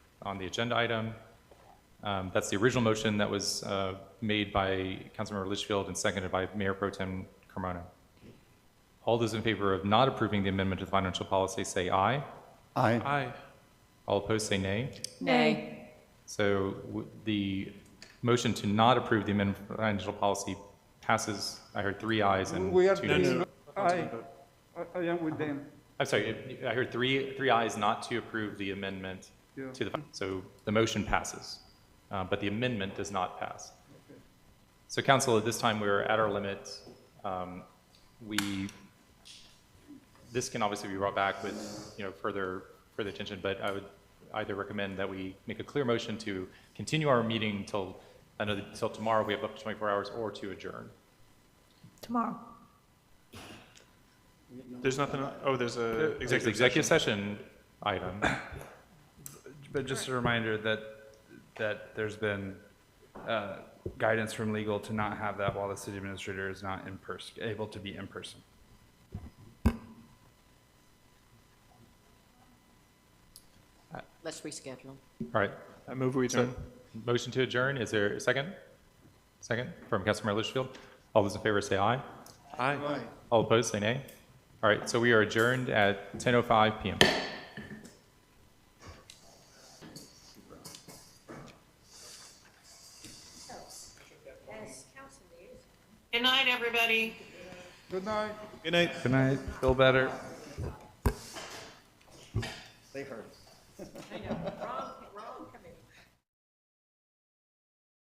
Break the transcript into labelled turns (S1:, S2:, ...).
S1: on the agenda item. Um, That's the original motion that was uh, made by Councilmember Litchfield and seconded by Mayor Pro Tem Carmona. All those in favor of not approving the amendment to the financial policy, say aye.
S2: Aye.
S3: Aye.
S1: All opposed, say nay.
S4: Nay.
S1: So w- the motion to not approve the amendment to financial policy passes, I heard three ayes and
S2: We are
S1: two
S3: No,
S1: nays.
S3: no.
S2: doing, aye. I I am with them.
S1: I'm sorry, I heard three, three ayes not to approve the amendment
S2: Yeah.
S1: to the, so the motion passes, uh, but the amendment does not pass. So council, at this time, we're at our limit. Um, We, this can obviously be brought back with, you know, further, further attention, but I would either recommend that we make a clear motion to continue our meeting till, another, till tomorrow, we have up to 24 hours, or to adjourn.
S4: Tomorrow.
S3: There's nothing, oh, there's a
S1: There's
S3: executive session.
S1: Executive session item.
S5: But just a reminder that, that there's been uh, guidance from legal to not have that while the city administrator is not in person, able to be in person.
S6: Let's reschedule.
S1: All right,
S3: I move we adjourn.
S1: Motion to adjourn, is there a second? Second, from Councilmember Litchfield. All those in favor say aye.
S3: Aye.
S1: All opposed, say nay. All right, so we are adjourned at 10:05 PM.
S7: Good night, everybody.
S2: Good night.
S3: Good night.
S5: Good night, feel better.
S7: I know. Wrong,